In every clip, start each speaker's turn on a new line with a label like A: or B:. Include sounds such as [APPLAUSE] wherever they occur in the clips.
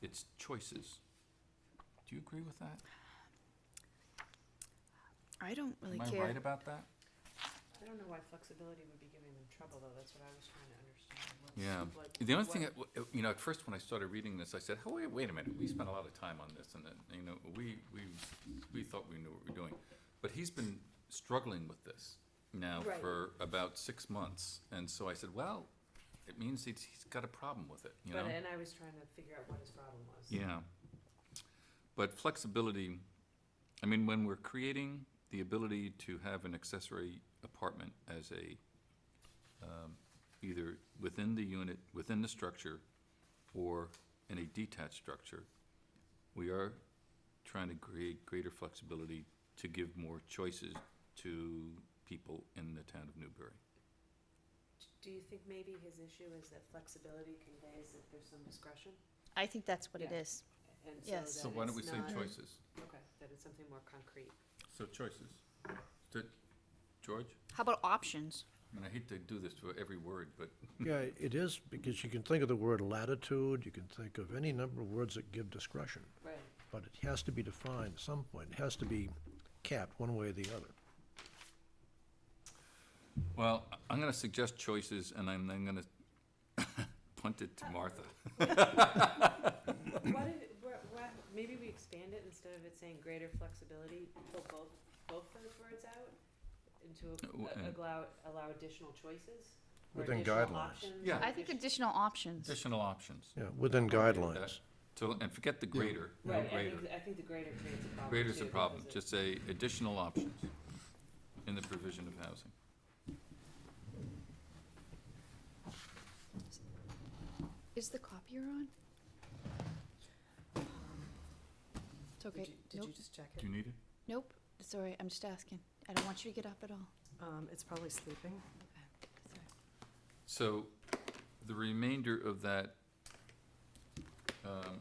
A: it's choices. Do you agree with that?
B: I don't really
A: Am I
B: care.
A: right about that?
C: I don't know why flexibility would be giving them trouble, though, that's what I was trying to understand. What's-
A: Yeah.
C: what-
A: The only thing,
C: what-
A: that w- uh, you know, at first when I started reading this, I said, oh, wait, wait a minute, we spent a lot of time on this and, that, you know, we, we, we thought we knew what we were doing. But he's been struggling with this now
C: Right.
A: for about six months. And so I said, well, it means he's, he's got a problem with it, you know?
C: But, and I was trying to figure out what his problem was.
A: Yeah. But flexibility, I mean, when we're creating the ability to have an accessory apartment as a, um, either within the unit, within the structure, or in a detached structure, we are trying to create greater flexibility to give more choices to people in the town of Newbury.
C: Do you think maybe his issue is that flexibility conveys that there's some discretion?
B: I think that's what it
C: Yeah.
B: is.
C: And
B: Yes.
A: So
C: that
A: why don't
C: it's
A: we say
C: not-
A: choices?
C: Okay, that it's something more concrete.
A: So choices. Did- George?
B: How about options?
A: I mean, I hate to do this for every word, but
D: Yeah, it is, because you can think of the word latitude, you can think of any number of words that give discretion,
C: Right.
D: but it has to be defined at some point. It has to be capped one way or the other.
A: Well, I- I'm gonna suggest choices, and I'm then gonna [LAUGHS] punt it to Martha.
C: What if, what, what, maybe we expand it instead of it saying greater flexibility, pull both, both those words out? Into
A: Uh,
C: a-
A: uh,
C: a- allow, allow additional choices? or
D: Within
C: additional
D: guidelines.
C: options,
A: Yeah.
C: or
B: I think
C: addition-
B: additional options.
A: Additional options.
D: Yeah, within guidelines.
A: So, and forget the greater, no
C: Right, I
A: greater.
C: think, I think the greater creates a problem
A: Greater's
C: too,
A: a
C: because
A: problem,
C: it-
A: just say additional options in the provision of housing.
B: Is the copier on? It's
C: Did
B: okay.
C: you, did
B: Nope,
C: you just check
A: Do
C: it?
A: you need it?
B: nope. It's all right. I'm just asking. I don't want you to get up at all.
A: Hmm.
C: Um, it's probably sleeping.
B: Okay. It's all right.
A: So, the remainder of that, um,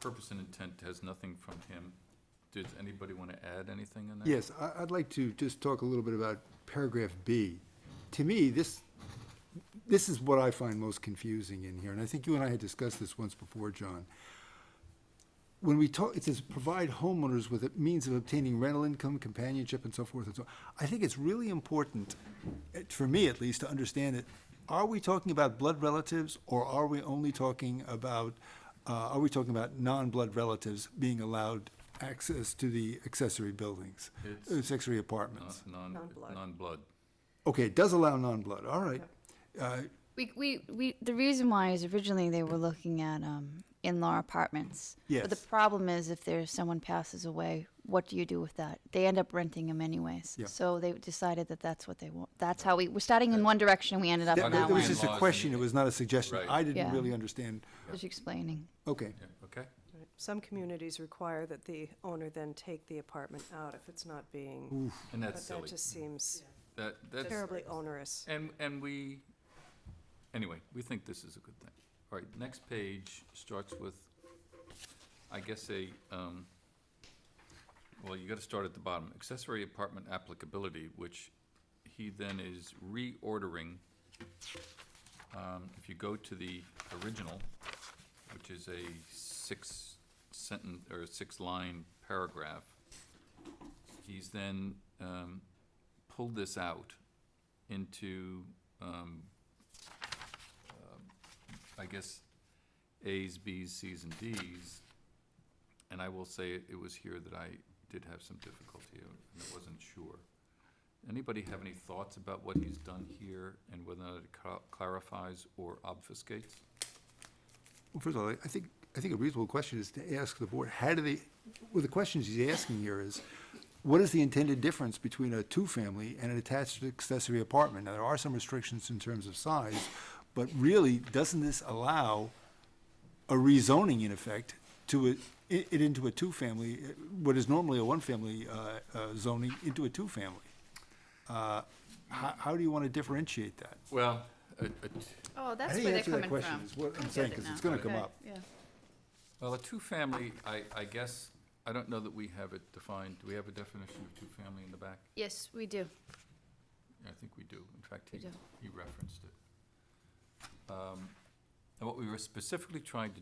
A: purpose and intent has nothing from him. Does anybody wanna add anything in that?
E: Yes, I, I'd like to just talk a little bit about paragraph B. To me, this, this is what I find most confusing in here, and I think you and I had discussed this once before, John. When we talk, it says provide homeowners with a means of obtaining rental income, companionship, and so forth and so on. I think it's really important, eh, for me at least, to understand it. Are we talking about blood relatives, or are we only talking about, uh, are we talking about non-blood relatives being allowed access to the accessory buildings? uh,
A: It's-
E: Accessory
A: Non-
E: apartments?
A: Non,
C: Non-blood.
A: non-blood.
E: Okay, it does allow non-blood, all right. Uh,
B: We, we, we, the reason why is originally they were looking at um, in-law apartments. But
E: Yes.
B: the problem is if there's someone passes away, what do you do with that? They end up renting them anyways.
E: Yeah.
B: So they decided that that's what they want. That's how we, we're starting in one direction and we ended up
E: That
B: in that
E: that was
B: one.
E: just a
A: Bylaws
E: question, it
A: and-
E: was not a suggestion.
A: Right.
E: I
B: Yeah.
E: didn't really understand.
B: Just explaining.
E: Okay,
A: Yeah, okay?
F: Right. Some communities require that the owner then take the apartment out if it's not being,
A: And
F: but
A: that's
F: that
A: silly.
F: just seems
A: That, that's.
F: terribly onerous.
A: And, and we, anyway, we think this is a good thing. All right, next page starts with, I guess, a, um, well, you gotta start at the bottom, accessory apartment applicability, which he then is reordering. Um, if you go to the original, which is a six sentence, or a six-line paragraph, he's then, um, pulled this out into, um, um, I guess, As, Bs, Cs, and Ds. And I will say it it was here that I did have some difficulty, and I wasn't sure. Anybody have any thoughts about what he's done here and whether or not it cla- clarifies or obfuscates?
E: well, first of all, I think, I think a reasonable question is to ask the board, how do they, well, the questions he's asking here is, what is the intended difference between a two-family and an attached accessory apartment? Now, there are some restrictions in terms of size, but really, doesn't this allow a rezoning in effect to it, it into a two-family, uh, what is normally a one-family uh, uh, zoning, into a two-family? Uh, How, how do you want to differentiate that?
A: Well,
B: Oh,
E: I
B: that's
E: didn't
B: where they're
E: answer that
B: coming
E: question,
B: from.
E: is what I'm
B: I get
E: saying,
B: it
E: 'cause
B: now.
E: it's gonna come
B: Okay,
E: up.
B: Yeah.
A: well, a two-family, I, I guess, I don't know that we have it defined. Do we have a definition of two-family in the back?
B: Yes, we do.
A: I think we do. In fact, he,
B: We do.
A: he referenced it. Um, And what we were specifically trying to